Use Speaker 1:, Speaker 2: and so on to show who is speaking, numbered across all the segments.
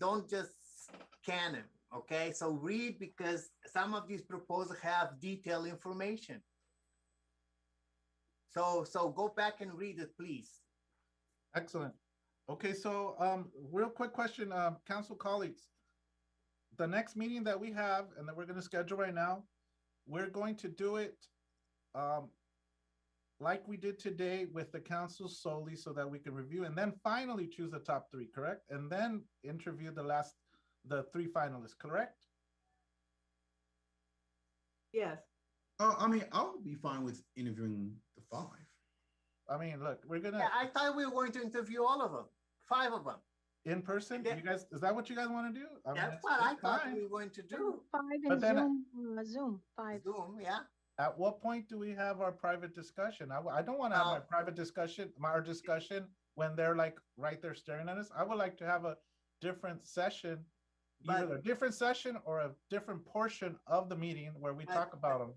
Speaker 1: don't just scan it, okay? So read because some of these proposals have detailed information. So, so go back and read it, please.
Speaker 2: Excellent. Okay, so um, real quick question, um, council colleagues. The next meeting that we have and that we're gonna schedule right now, we're going to do it um, like we did today with the council solely so that we can review and then finally choose the top three, correct? And then interview the last, the three finalists, correct?
Speaker 3: Yes,
Speaker 4: Oh, I mean, I would be fine with interviewing the five.
Speaker 2: I mean, look, we're
Speaker 1: Yeah,
Speaker 2: gonna,
Speaker 1: I thought we were going to interview all of them, five of them.
Speaker 2: in person, you guys, is that what you guys wanna do? I mean,
Speaker 1: That's
Speaker 2: it's-
Speaker 1: what I
Speaker 2: it's
Speaker 1: thought
Speaker 2: fine.
Speaker 1: we were going to do.
Speaker 5: Five
Speaker 2: But
Speaker 5: and
Speaker 2: then I-
Speaker 5: Zoom, uh, Zoom, five.
Speaker 1: Zoom, yeah.
Speaker 2: At what point do we have our private discussion? I, I don't want to have my
Speaker 1: Uh,
Speaker 2: private discussion, my our discussion when they're like right there staring at us. I would like to have a different session, either
Speaker 1: But-
Speaker 2: a different session or a different portion of the meeting where we
Speaker 1: But-
Speaker 2: talk about them.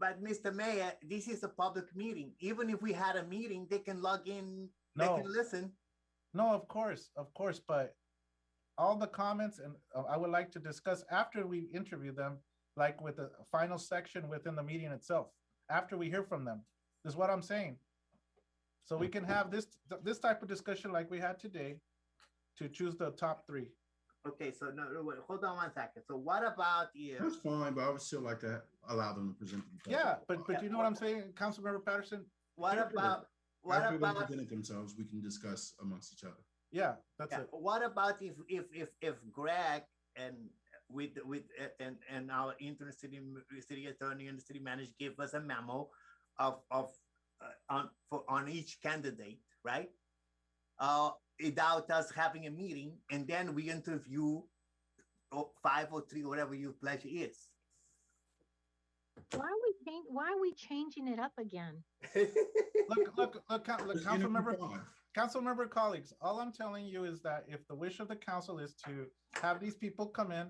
Speaker 1: But Mr. Mayor, this is a public meeting. Even if we had a meeting, they can log in, they
Speaker 2: No.
Speaker 1: can listen.
Speaker 2: No, of course, of course, but all the comments and uh, I would like to discuss after we interview them, like with the final section within the meeting itself, after we hear from them, is what I'm saying. So we can have this, th- this type of discussion like we had today to choose the top three.
Speaker 1: Okay, so no, no, wait, hold on one second. So what about you?
Speaker 4: That's fine, but I would still like to allow them to present. themselves.
Speaker 2: Yeah, but, but you know what I'm saying, Councilmember Patterson?
Speaker 1: What about, what
Speaker 4: After they
Speaker 1: about,
Speaker 4: presented themselves, we can discuss amongst each other.
Speaker 2: Yeah, that's
Speaker 1: yeah,
Speaker 2: it.
Speaker 1: what about if, if, if, if Greg and with, with, and, and our interim city, city attorney and city manager give us a memo of, of, uh, on, for, on each candidate, right? Uh, without us having a meeting and then we interview oh, five or three, whatever your pleasure is.
Speaker 5: Why are we change, why are we changing it up again?
Speaker 2: Look, look, look, Coun- look,
Speaker 4: Just interview
Speaker 2: Councilmember
Speaker 4: five.
Speaker 2: Council member colleagues, all I'm telling you is that if the wish of the council is to have these people come in,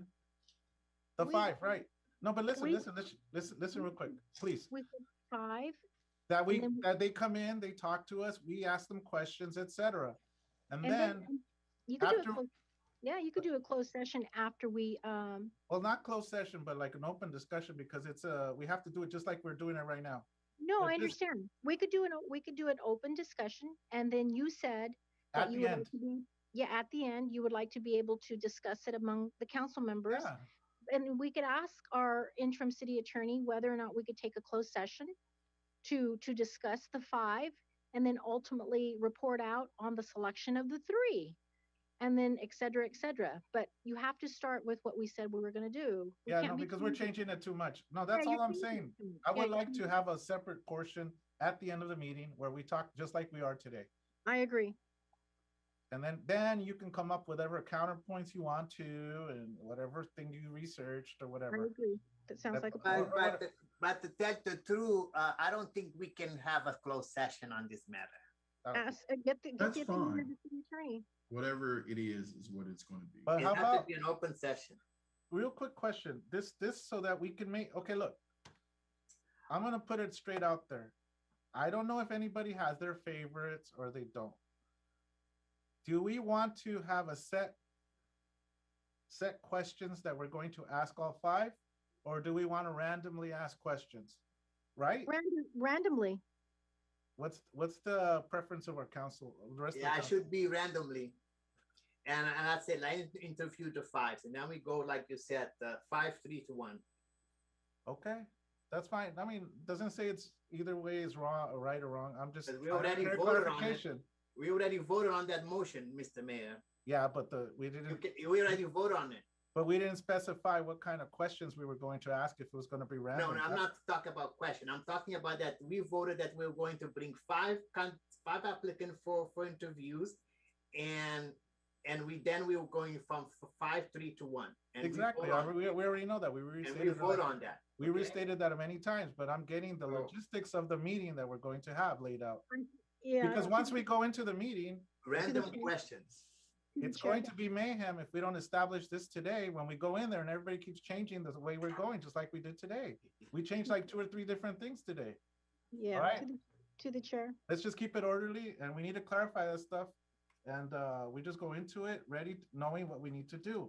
Speaker 2: the
Speaker 5: We-
Speaker 2: five, right? No, but listen,
Speaker 5: we-
Speaker 2: listen, listen, listen, listen real quick, please.
Speaker 5: With the five,
Speaker 2: That we,
Speaker 5: And then-
Speaker 2: that they come in, they talk to us, we ask them questions, et cetera. And
Speaker 5: and then,
Speaker 2: then,
Speaker 5: you could do
Speaker 2: after-
Speaker 5: a clo- yeah, you could do a closed session after we, um,
Speaker 2: well, not closed session, but like an open discussion because it's a, we have to do it just like we're doing it right now.
Speaker 5: no,
Speaker 2: But
Speaker 5: I
Speaker 2: this-
Speaker 5: understand. We could do an, o- we could do an open discussion, and then you said that
Speaker 2: At
Speaker 5: you
Speaker 2: the
Speaker 5: would like
Speaker 2: end,
Speaker 5: to be, yeah, at the end, you would like to be able to discuss it among the council members.
Speaker 2: yeah,
Speaker 5: and we could ask our interim city attorney whether or not we could take a closed session to, to discuss the five and then ultimately report out on the selection of the three. And then et cetera, et cetera. But you have to start with what we said we were gonna do. We
Speaker 2: yeah,
Speaker 5: can't
Speaker 2: no,
Speaker 5: be
Speaker 2: because we're
Speaker 5: changing-
Speaker 2: changing it too much. No,
Speaker 5: Yeah,
Speaker 2: that's
Speaker 5: you're
Speaker 2: all I'm
Speaker 5: changing
Speaker 2: saying.
Speaker 5: it too much.
Speaker 2: I
Speaker 5: Yeah,
Speaker 2: would
Speaker 5: you're
Speaker 2: like to
Speaker 5: changing-
Speaker 2: have a separate portion at the end of the meeting where we talk just like we are today.
Speaker 5: I agree.
Speaker 2: And then, then you can come up with whatever counterpoints you want to and whatever thing you researched or
Speaker 5: I
Speaker 2: whatever.
Speaker 5: agree. That sounds like
Speaker 2: That's-
Speaker 5: a
Speaker 1: But,
Speaker 5: plan.
Speaker 1: but, the- but to tell the truth, uh, I don't think we can have a closed session on this matter.
Speaker 2: Uh,
Speaker 5: Ask, uh, get the, get
Speaker 4: That's
Speaker 5: the opinion of
Speaker 4: fine.
Speaker 5: the city attorney.
Speaker 4: Whatever it is, is what it's going to be.
Speaker 2: But
Speaker 1: It
Speaker 2: how
Speaker 1: has to
Speaker 2: about,
Speaker 1: be an open session.
Speaker 2: real quick question, this, this so that we can make, okay, look. I'm gonna put it straight out there. I don't know if anybody has their favorites or they don't. Do we want to have a set set questions that we're going to ask all five? Or do we want to randomly ask questions? Right?
Speaker 5: Random- Randomly,
Speaker 2: What's, what's the preference of our council? the rest of the
Speaker 1: Yeah, I
Speaker 2: council?
Speaker 1: should be randomly. And, and I said, I interview the fives, and then we go, like you said, uh, five, three to one.
Speaker 2: Okay, that's fine. I mean, doesn't say it's either way is wrong or right or wrong. I'm just.
Speaker 1: But we
Speaker 2: I want
Speaker 1: already
Speaker 2: clear
Speaker 1: voted on it.
Speaker 2: clarification.
Speaker 1: We already voted on that motion, Mr. Mayor.
Speaker 2: Yeah, but the, we
Speaker 1: You
Speaker 2: didn't,
Speaker 1: ca- We already voted on it.
Speaker 2: but we didn't specify what kind of questions we were going to ask if it was gonna be
Speaker 1: No,
Speaker 2: random.
Speaker 1: no, I'm
Speaker 2: That-
Speaker 1: not talking about question. I'm talking about that we voted that we're going to bring five con- five applicants for for interviews, and and we then we were going from f- five three to one. And we
Speaker 2: Exactly,
Speaker 1: vote
Speaker 2: I-
Speaker 1: on-
Speaker 2: we, we already know that. We
Speaker 1: And we
Speaker 2: restated,
Speaker 1: vote
Speaker 2: that-
Speaker 1: on that.
Speaker 2: we restated that many times, but I'm getting the
Speaker 4: Oh.
Speaker 2: logistics of the meeting that we're going to have laid out.
Speaker 5: yeah. I
Speaker 2: Because
Speaker 5: don't
Speaker 2: once
Speaker 5: think
Speaker 2: we go into the meeting,
Speaker 1: Random
Speaker 5: Okay.
Speaker 1: questions.
Speaker 5: the
Speaker 2: it's
Speaker 5: chair
Speaker 2: going to be mayhem if we don't establish this today, when we go in there and everybody keeps changing the way we're going, just like we did today. We changed like two or three different things today.
Speaker 5: Yeah,
Speaker 2: Alright.
Speaker 5: to the- to the chair.
Speaker 2: let's just keep it orderly and we need to clarify that stuff And uh, we just go into it ready, knowing what we need to do.